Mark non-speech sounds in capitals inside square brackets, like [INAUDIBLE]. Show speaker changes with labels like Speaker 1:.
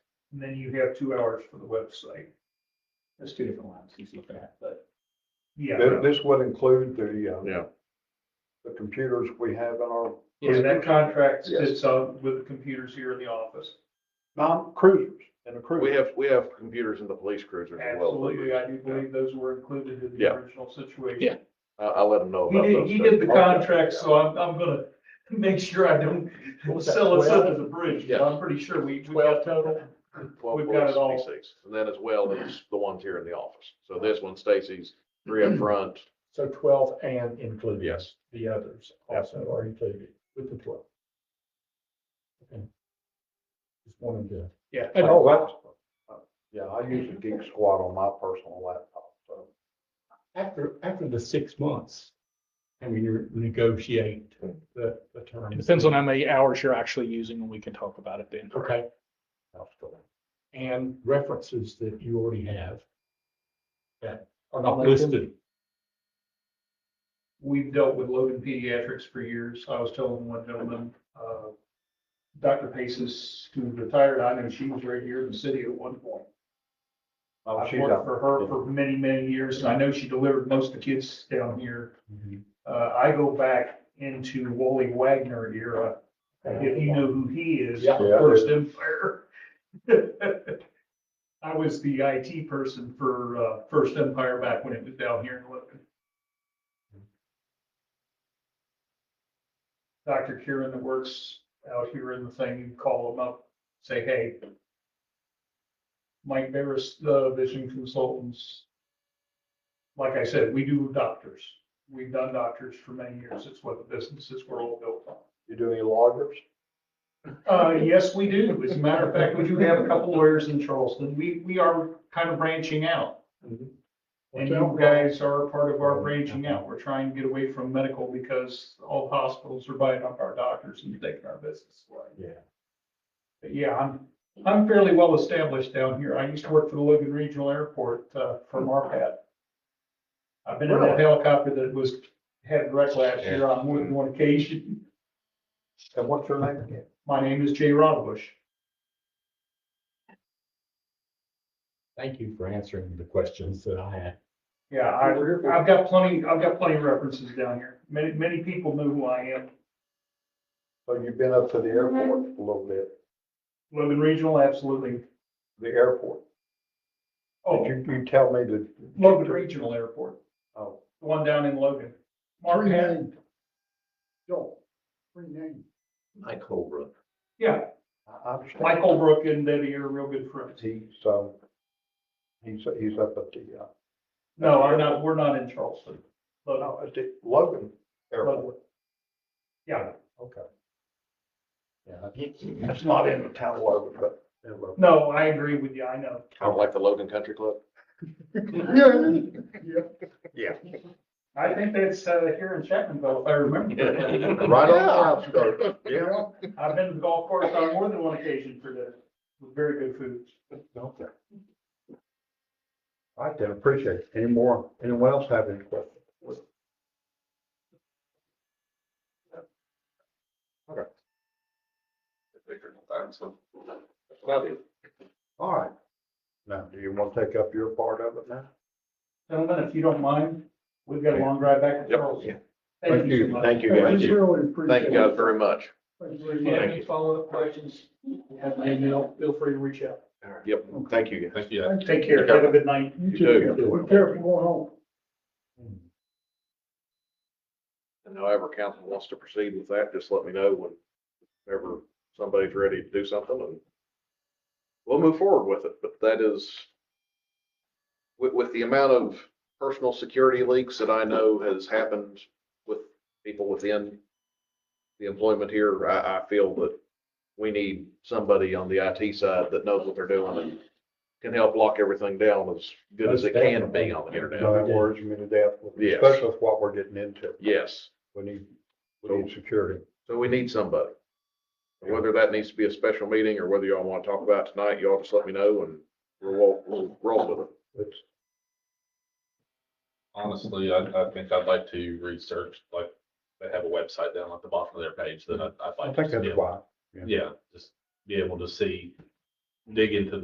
Speaker 1: And then you have two hours for the website. That's two different ones he's looking at, but. Yeah,
Speaker 2: This, this would include the, uh,
Speaker 3: Yeah.
Speaker 2: the computers we have in our,
Speaker 1: yeah, that contract
Speaker 3: Yes.
Speaker 1: sits up with the computers here in the office.
Speaker 2: non cruisers, in a cruiser.
Speaker 3: We have, we have computers in the police cruiser as well. so
Speaker 1: Absolutely, I do believe those were included in the
Speaker 3: Yeah.
Speaker 1: original situation.
Speaker 3: Yeah. I, I'll let them know
Speaker 1: He
Speaker 3: about
Speaker 1: did,
Speaker 3: those.
Speaker 1: he did the
Speaker 3: things.
Speaker 1: contract, so I'm, I'm gonna make sure I don't sell us up as a bridge, but
Speaker 3: Yeah.
Speaker 1: I'm pretty sure we, we got
Speaker 3: Well-
Speaker 1: total.
Speaker 3: Twelve
Speaker 1: We've got it all.
Speaker 3: police, sixty-six, and then as well, there's the ones here in the office. So this one, Stacy's, three up front,
Speaker 4: So twelve and including.
Speaker 3: yes.
Speaker 4: The others also are included with the twelve. Okay. Just wanted to.
Speaker 1: Yeah.
Speaker 4: And-
Speaker 2: Oh, that's, yeah, I use a Geek Squad on my personal laptop, so.
Speaker 4: After, after the six months, and we negotiate the, the term.
Speaker 5: It depends on how many hours you're actually using and we can talk about it then.
Speaker 4: Okay. And references that you already have. That are not listed.
Speaker 1: We've dealt with Logan Pediatrics for years. I was telling one gentleman, uh, Dr. Paces, who retired, I know she was right here in the city at one point.
Speaker 2: Oh,
Speaker 1: I've
Speaker 2: she's
Speaker 1: worked
Speaker 2: up.
Speaker 1: for her for many, many years, and I know she delivered most of the kids down here. Uh, I go back into Wally Wagner era, if you know who he is,
Speaker 4: Yeah.
Speaker 2: Yeah.
Speaker 1: First Empire. [LAUGHS] I was the IT person for, uh, First Empire back when it was down here in Logan. Dr. Kieran that works out here in the thing, you call him up, say, hey, Mike Barris, the vision consultants. Like I said, we do doctors. We've done doctors for many years. It's what the businesses were all built on.
Speaker 2: You do any loggers?
Speaker 1: Uh, yes, we do. As a matter of fact, we do have a couple lawyers in Charleston. We, we are kind of branching out. And you guys are a part of our branching out. We're trying to get away from medical because all hospitals are buying up our doctors and taking our business away.
Speaker 4: Yeah.
Speaker 1: But yeah, I'm, I'm fairly well established down here. I used to work for the Logan Regional Airport, uh, for MARPAD. I've been in a
Speaker 2: Really?
Speaker 1: helicopter that was, had wreck last year on more than one occasion.
Speaker 2: And what's your name again?
Speaker 1: My name is Jay Rodbush.
Speaker 4: Thank you for answering the questions that I had.
Speaker 1: Yeah, I, I've got plenty, I've got plenty of references down here. Many, many people know who I am.
Speaker 2: So you've been up to the airport a little bit,
Speaker 1: Logan Regional, absolutely.
Speaker 2: the airport.
Speaker 1: Oh,
Speaker 2: Did you, you tell me that?
Speaker 1: Logan Regional Airport,
Speaker 2: Oh,
Speaker 1: the one down in Logan. Mark had,
Speaker 2: Joel, free name.
Speaker 3: Mike Holbrook.
Speaker 1: yeah,
Speaker 2: I I understand.
Speaker 1: Michael Brook and Debbie are real good friends.
Speaker 2: He's, um, he's, he's up at the, uh,
Speaker 1: No, I'm not, we're not in Charleston. But, uh,
Speaker 2: no, at the Logan Airport.
Speaker 1: yeah,
Speaker 2: Okay. Yeah, that's not in the town of Logan, but. in Logan.
Speaker 1: no, I agree with you, I know.
Speaker 3: Kind of like the Logan Country Club.
Speaker 1: I think that's, uh, here in Chapmanville, if I remember.
Speaker 2: [LAUGHS]
Speaker 1: correctly.
Speaker 2: Right on the outskirts, yeah.
Speaker 1: I've been to the golf course on more than one occasion for this, with very good food.
Speaker 2: Okay. All right, then, appreciate it. Any more, anyone else have any questions? All right. Now, do you want to take up your part of it now?
Speaker 1: Gentlemen, if you don't mind, we've got a long drive back to
Speaker 3: Yep.
Speaker 1: Charleston.
Speaker 2: Thank
Speaker 1: so
Speaker 2: you,
Speaker 1: much.
Speaker 2: thank you,
Speaker 3: Thank
Speaker 2: guys.
Speaker 3: you. Thank you guys very much.
Speaker 1: If you have any follow-up questions, you have my email, feel free to reach out.
Speaker 3: Yep, thank you. guys.
Speaker 4: Thank you.
Speaker 1: Take care, have a good night.
Speaker 3: You too.
Speaker 2: Be
Speaker 1: careful going home.
Speaker 3: And however council wants to proceed with that, just let me know whenever somebody's ready to do something and we'll move forward with it, but that is with, with the amount of personal security leaks that I know has happened with people within the employment here, I, I feel that we need somebody on the IT side that knows what they're doing and can help lock everything down as good as it can be on the
Speaker 2: No,
Speaker 3: internet.
Speaker 2: that worries me to death,
Speaker 3: Yes.
Speaker 2: especially with what we're getting into.
Speaker 3: Yes.
Speaker 2: We need, we need security.
Speaker 3: So we need somebody. Whether that needs to be a special meeting or whether y'all want to talk about it tonight, y'all just let me know and we'll, walk- we'll roll with it.
Speaker 2: It's,
Speaker 6: Honestly, I, I think I'd like to research, like, they have a website down at the bottom of their page that I, I'd
Speaker 2: I
Speaker 6: like.
Speaker 2: think
Speaker 6: to
Speaker 2: that's
Speaker 6: be able-
Speaker 2: why.
Speaker 6: Yeah, just be able to see, dig into